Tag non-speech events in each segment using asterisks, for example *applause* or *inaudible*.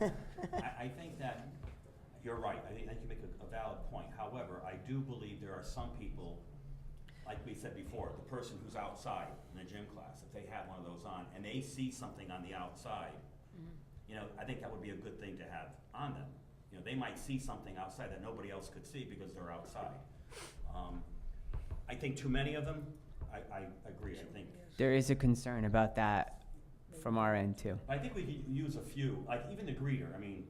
I, I think that, you're right, I think, I think you make a, a valid point, however, I do believe there are some people, like we said before, the person who's outside in the gym class, if they have one of those on, and they see something on the outside, you know, I think that would be a good thing to have on them. You know, they might see something outside that nobody else could see because they're outside. Um, I think too many of them, I, I agree, I think, There is a concern about that from our end too. I think we could use a few, like even the greeter, I mean,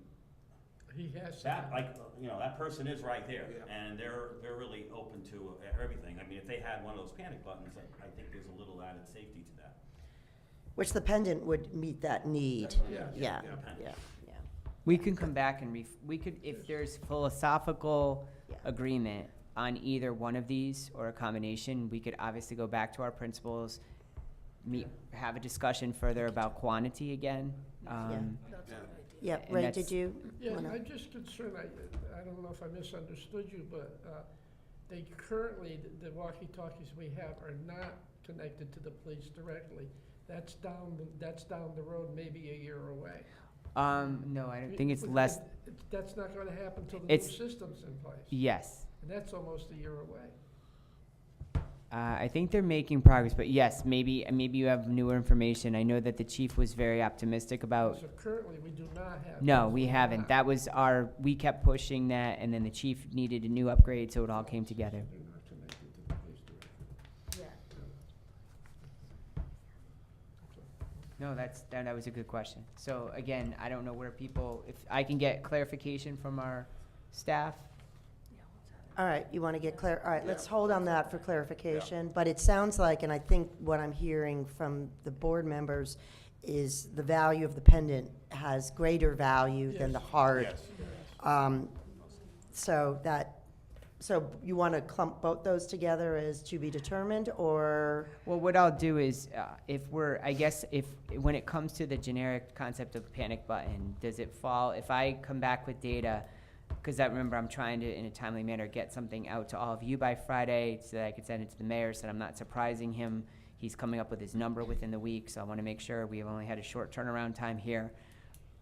He has. That, some. like, you know, that person is right there, Yeah. and they're, they're really open to everything. I mean, if they had one of those panic buttons, I, I think there's a little added safety to that. *laughs* Which the pendant would meet that need. That's what I'm- Yeah, yeah. yeah, yeah. We can come back and ref, we could, if there's philosophical Yeah. agreement on either one of these or a combination, we could obviously go back to our principals, meet, have a discussion further about quantity again. Um, That's Yeah. all right. Yep, And Ray, that's- did you Yeah, wanna? I'm just concerned, I, I don't know if I misunderstood you, but, uh, they currently, the- the walkie-talkies we have are not connected to the police directly. That's down, the- that's down the road, maybe a year away. um, no, I don't think it's less, It's- That's not gonna happen till the new It's- system's in place, yes. and that's almost a year away. Uh, I think they're making progress, but yes, maybe, maybe you have newer information. I know that the chief was very optimistic about So currently, we do not have. Oh. No, those. we haven't. That was our, we kept pushing that, and then the chief needed a new upgrade, so it all came together. They're not connected to the police director. No, that's, that, that was a good question. So again, I don't know where people, if I can get clarification from our staff. All right, you want to get clar, all right, let's Yeah. hold on that for clarification. But it sounds like, and I think what I'm hearing from the board members is the value of the pendant has greater value than the Yes. heart. Um, So that, so you want to clump both those together as to be determined, or? Well, what I'll do is, uh, if we're, I guess, if, when it comes to the generic concept of panic button, does it fall, if I come back with data, because I remember I'm trying to, in a timely manner, get something out to all of you by Friday, so that I can send it to the mayor, so that I'm not surprising him. He's coming up with his number within the week, so I want to make sure we have only had a short turnaround time here.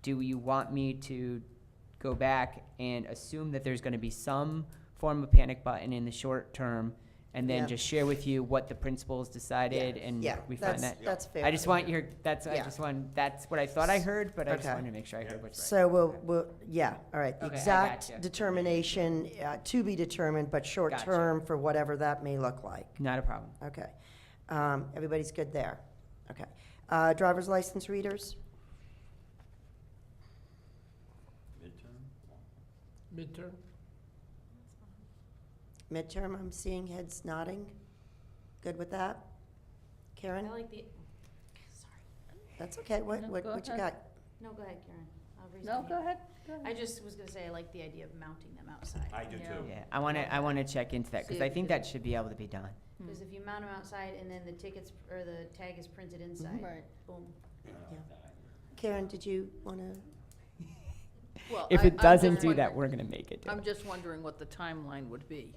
Do you want me to go back and assume that there's going to be some form of panic button in the short term, and Yeah. then just share with you what the principals decided and Yeah, we that's- find that? That's fair. I just want your, that's, I Yeah. just want, that's what I thought I heard, but I just Okay. wanted to make sure I heard what's right. So we'll, we'll, yeah, all right, the Okay, I exact gotcha. determination uh, to be determined, but Gotcha. short-term for whatever that may look like. Not a problem. Okay. Um, Everybody's good there? Okay. Uh, Driver's license readers? Midterm? Midterm, Midterm, I'm seeing heads nodding. Good with that? I Karen? like the, sorry. That's okay. What, No, what go what you ahead. got? No, go ahead, Karen. I'll raise No, my go hand. ahead. go ahead. I just was gonna say, I like the idea of mounting them outside. I do Yeah. too. Yeah, I want to, I want to check into that, because I So- think that should be able to be done. Because if you mount them outside and then the tickets, or the tag is printed inside, Right. boom. Uh, Karen, did you want *laughs* to? Well, If I- it I'm doesn't just do that, wondering- we're going to make it do I'm it. just wondering what the timeline would be.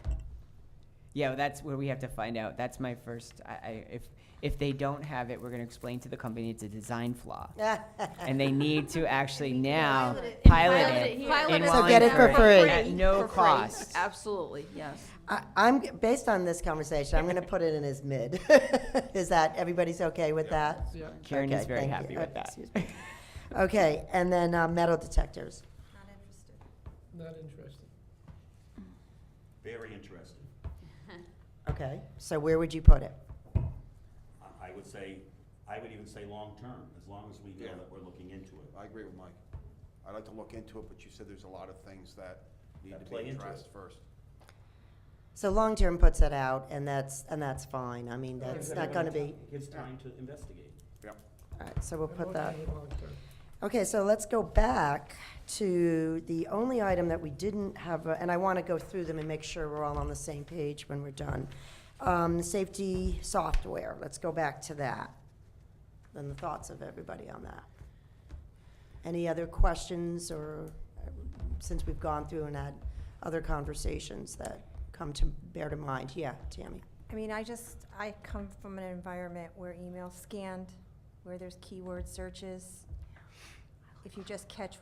Yeah, well, that's where we have to find out. That's my first, I, I, if, if they don't have it, we're going to explain to the company it's a design flaw. And they *laughs* need to actually now Pilot it. pilot Pilot it. it here. in Pilot it So get it for Wallingford free. At no For free. cost. Absolutely, yes. I- I'm, g- based on this conversation, I'm going to put it in as mid. *laughs* Is that, everybody's okay with that? yeah. Karen is Okay, very thank you. happy Uh, with that. excuse Okay, and then uh, metal detectors. Not interested. Very interesting. Okay, so where would you put it? I- I would say, I would even say long-term, as long as we know Yeah. that we're looking into it. I agree with Mike. I'd like to look into it, but you said there's a lot of things that need That to play be into it. addressed first. So long-term puts it out, and that's, and that's fine. I mean, that's Gives not going to everybody be, ti- Gives time to investigate. all right, so we'll I'm put okay that. with long-term. Okay, so let's go back to the only item that we didn't have, uh, and I want to go through them and make sure we're all on the same page when we're done. Um, Safety software, let's go back to that, and the thoughts of everybody on that. Any other questions, or uh, since we've gone through and had other conversations that come to, bear to mind? Yeah, Tammy? I mean, I just, I come from an environment where email's scanned, where there's keyword searches. If you just catch